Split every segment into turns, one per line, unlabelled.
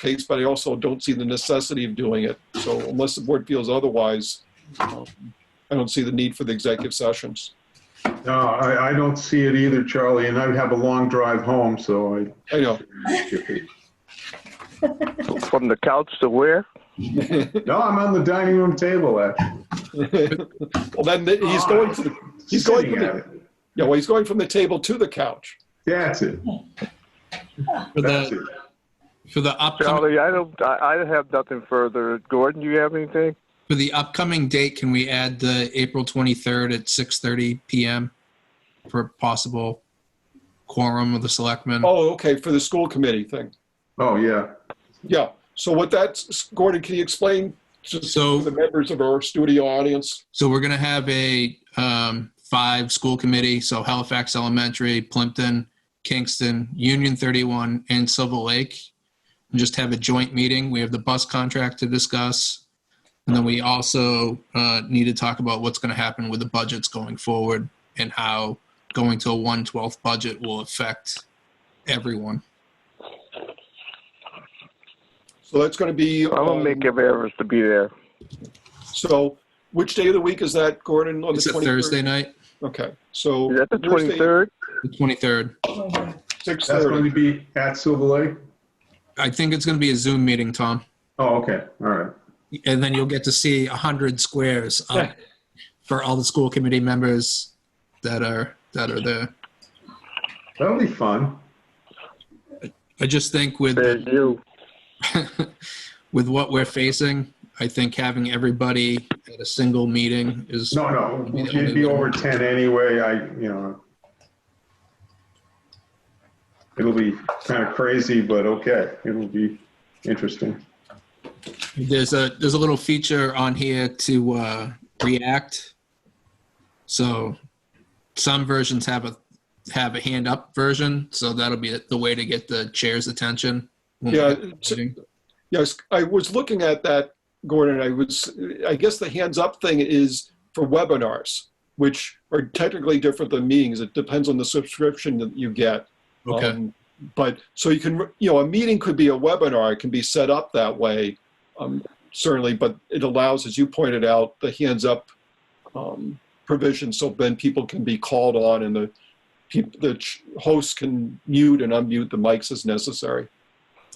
case, but I also don't see the necessity of doing it. So unless the board feels otherwise, um, I don't see the need for the executive sessions.
No, I, I don't see it either, Charlie, and I would have a long drive home, so I.
I know.
From the couch to where?
No, I'm on the dining room table. actually.
Well, then the- he's going to, the- he's going,
Sitting
from
at
the-
it.
yeah, well, he's going from the table to the couch.
That's it.
For
That's
the,
it.
for the upcoming,
Charlie, I don't, I, I have nothing further. Gordon, you have anything?
for the upcoming date, can we add the April 23rd at 6:30 PM for possible quorum of the selectmen?
Oh, okay, for the school committee thing.
Oh, yeah.
Yeah, so what that's, Gordon, can you explain to
So-
to the members of our studio audience?
So we're going to have a um, five school committee. So Halifax Elementary, Plimpton, Kingston, Union 31, and Silver Lake. And just have a joint meeting. We have the bus contract to discuss. And then we also uh, need to talk about what's going to happen with the budgets going forward and how going to a 112th budget will affect everyone.
So that's going to be,
I'm gonna
um,
make every effort to be there.
so which day of the week is that, Gordon? On the
It's a
23rd?
Thursday night,
Okay, so.
Is that the
Thursday,
twenty-third?
the 23rd.
That's going
6:30.
to be at Silver Lake?
I think it's going to be a Zoom meeting, Tom.
Oh, okay, all right.
and then you'll get to see 100 squares um,
Yeah.
for all the school committee members that are that are there
That'll be fun.
i just think with
There's you.
with what we're facing i think having everybody at a single meeting is
No, no, it'd be over 10 anyway, I, you know. It'll be kind of crazy, but okay, it'll be interesting.
there's a there's a little feature on here to uh, react so some versions have a have a hand up version so that'll be the way to get the chair's attention when
Yeah,
we're
it's-
meeting.
Yes, I was looking at that, Gordon, I was, I guess the hands up thing is for webinars, which are technically different than meetings. It depends on the subscription that you get.
okay
Um, But, so you can, you know, a meeting could be a webinar, it can be set up that way, um, certainly, but it allows, as you pointed out, the hands up um, provision, so then people can be called on and the, peop- the ch- hosts can mute and unmute the mics as necessary.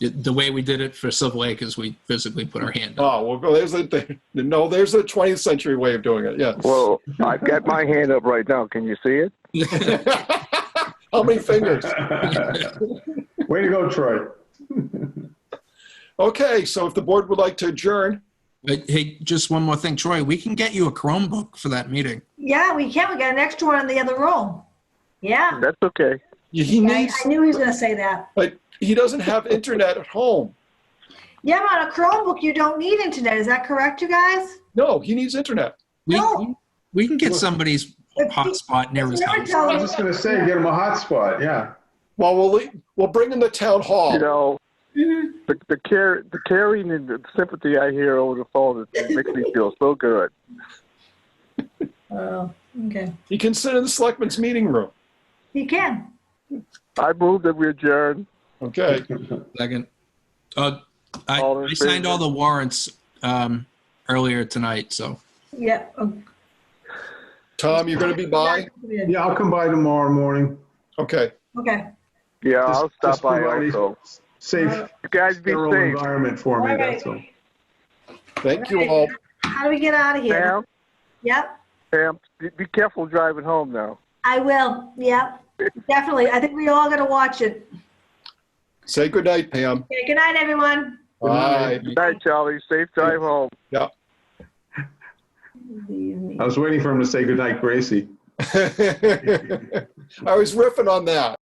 It- The way we did it for Silver Lake is we physically put our hand up.
Oh, well, there's a, there, no, there's a 20th century way of doing it, yeah.
Well, I've got my hand up right now. Can you see it?
How many fingers?
Way to go, Troy.
Okay, so if the board would like to adjourn,
But hey, just one more thing, Troy, we can get you a Chromebook for that meeting.
Yeah, we can. We got an extra one in the other room. Yeah.
That's okay.
he
Yeah, I
needs,
I knew he was going to say that.
but he doesn't have internet at home.
Yeah, but on a Chromebook, you don't need internet. Is that correct, you guys?
No, he needs internet.
We,
No.
we can get somebody's
If he-
hotspot near his
Never
house.
tell
I was
him.
just gonna say, get him a hotspot, yeah.
Well, we'll, leave- we'll bring in the town
You
hall.
know, the, the care, the caring and the sympathy I hear over the phone, it makes me feel so good.
Oh, okay.
He can sit in the selectmen's meeting room.
He can.
I move that we adjourn.
Okay,
Second. Uh, I,
All in
I signed
favor?
all the warrants, um, earlier tonight, so.
Yeah. oh,
Tom, you're gonna be by?
yeah,
Yeah, I'll come by tomorrow morning.
Okay,
Okay.
Just-
Yeah, I'll stop
just
by
provide a
also.
Safe,
You guys be
sterile
safe.
environment for me, that's all.
thank you all.
How do we get out of here?
Sam,
Yep.
Sam, be- be careful driving home now.
I will. Yep. Definitely. I think we all got to watch it.
Say goodnight, Pam.
Okay, good night, everyone.
Bye.
Good night, Charlie. Safe drive home.
I was waiting for him to say goodnight, Gracie.
I was riffing on that.